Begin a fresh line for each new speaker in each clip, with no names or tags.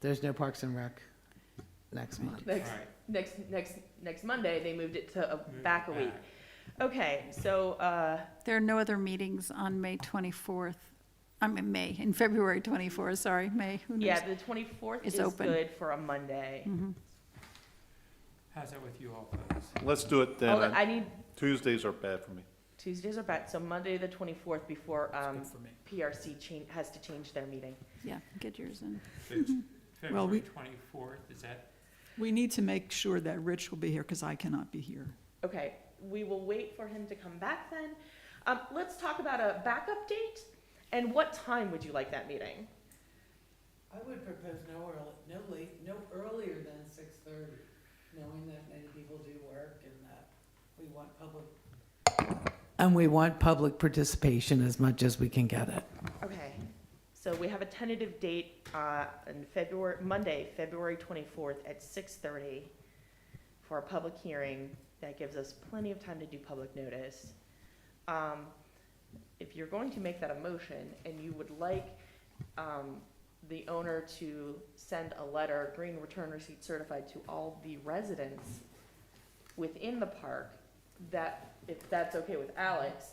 There's no Parks and Rec next month.
Next,
Alright,
next, next, next Monday, they moved it to uh,
move it
back a week. Okay, so, uh,
There are no other meetings on May 24th, I mean, May, in February 24th, sorry, May, who knows?
yeah, the twenty-fourth
It's
is
open.
good for a Monday.
Mhm.
How's that with you all folks?
Let's do it then.
Hold on,
I-
Oh, I need,
Tuesdays are bad for me.
Tuesdays are back, so Monday, the twenty-fourth, before,
It's
um,
good for me.
PRC change, has to change their meeting.
Yeah, get yours in.
It's
Well,
February
we-
twenty-fourth, is that,
We need to make sure that Rich will be here, because I cannot be here.
Okay, we will wait for him to come back then. Um, let's talk about a backup date, and what time would you like that meeting?
I would propose no early, no late, no earlier than six thirty, knowing that many people do work and that we want public. And we want public participation as much as we can get it.
Okay, so we have a tentative date, uh, in February, Monday, February twenty-fourth at six thirty for a public hearing. That gives us plenty of time to do public notice. Um, if you're going to make that a motion and you would like, um, the owner to send a letter, green return receipt certified to all the residents within the park, that, if that's okay with Alex,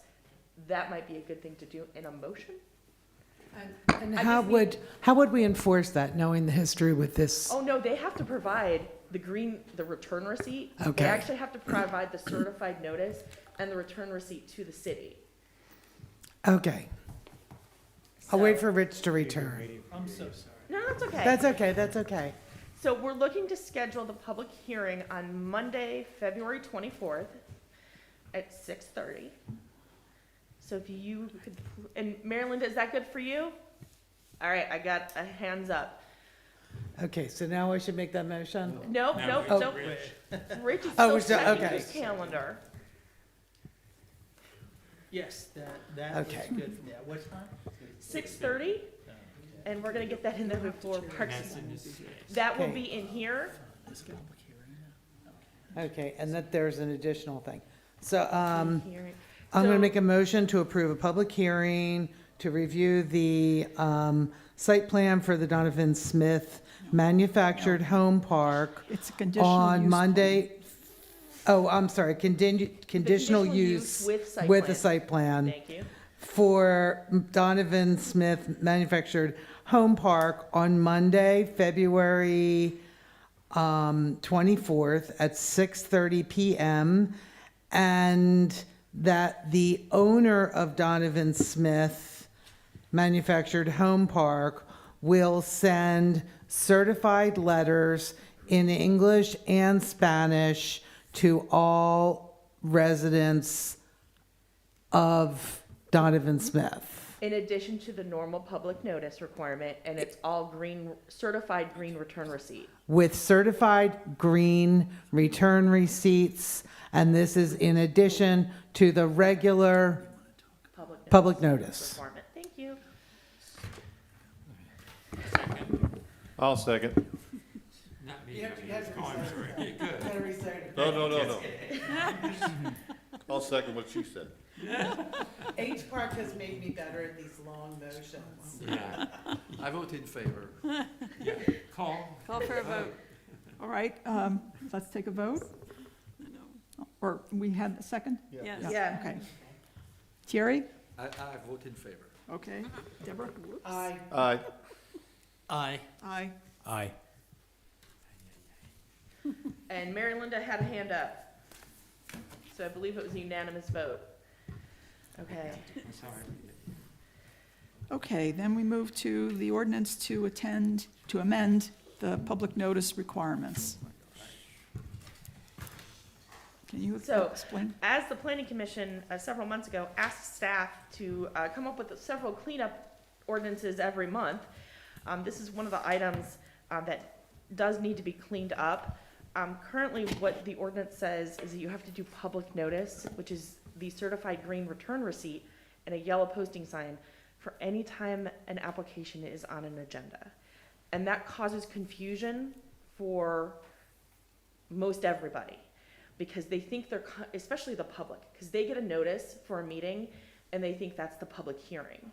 that might be a good thing to do in a motion?
And
I
how
just need-
would, how would we enforce that, knowing the history with this?
Oh, no, they have to provide the green, the return receipt. They
Okay.
actually have to provide the certified notice and the return receipt to the city.
Okay, I'll wait
So-
for Rich to return.
I'm so sorry.
No, that's okay.
That's okay, that's okay.
So we're looking to schedule the public hearing on Monday, February twenty-fourth at six thirty. So if you could, and Maryland, is that good for you? All right, I got a hands up.
Okay, so now I should make that motion?
Nope,
Now
nope,
it's
nope.
Rich.
Rich
Oh,
is still
we're still-
checking
okay.
his calendar.
Yes, that, that looks
Okay.
good for me. At what time?
Six thirty, and we're gonna get that in there before
And
Parks
that's in the sixth.
That will
Okay.
be in here.
Let's get public hearing.
Okay, and that there's an additional thing. So, um.
Here.
I'm going
So-
to make a motion to approve a public hearing to review the um, site plan for the Donovan Smith Manufactured Home Park
It's a conditional use.
on
plan.
Monday. Oh, I'm sorry, condi- conditional
Conditional use
use
with site
with
plan.
a site plan
Thank you.
for Donovan Smith Manufactured Home Park on Monday, February um, 24th at 6:30 PM. And that the owner of Donovan Smith Manufactured Home Park will send certified letters in English and Spanish to all residents of Donovan Smith.
In addition to the normal public notice requirement, and it's all green, certified green return receipt.
with certified green return receipts, and this is in addition to the regular
Public notice
public notice.
requirement. Thank you.
I'll second.
Not me, I mean, oh, I'm sorry, yeah, good.
No, no, no, no. I'll second what she said.
H Park has made me better at these long motions.
Yeah.
I vote in favor.
Call,
Call for a vote.
All right, um, let's take a vote. Or we had a second?
Yes.
Yeah.
Okay. Thierry?
I, I vote in favor.
Okay. Deborah?
I,
Aye.
Aye.
Aye.
Aye.
And Mary Linda had a hand up. So I believe it was a unanimous vote. Okay.
I'm sorry.
Okay, then we move to the ordinance to attend, to amend the public notice requirements. Can you
So-
explain?
As the planning commission, uh, several months ago, asked staff to, uh, come up with several cleanup ordinances every month. Um, this is one of the items, uh, that does need to be cleaned up. Um, currently, what the ordinance says is that you have to do public notice, which is the certified green return receipt and a yellow posting sign for any time an application is on an agenda. And that causes confusion for most everybody because they think they're, co- especially the public, because they get a notice for a meeting and they think that's the public hearing.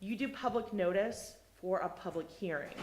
You do public notice for a public hearing.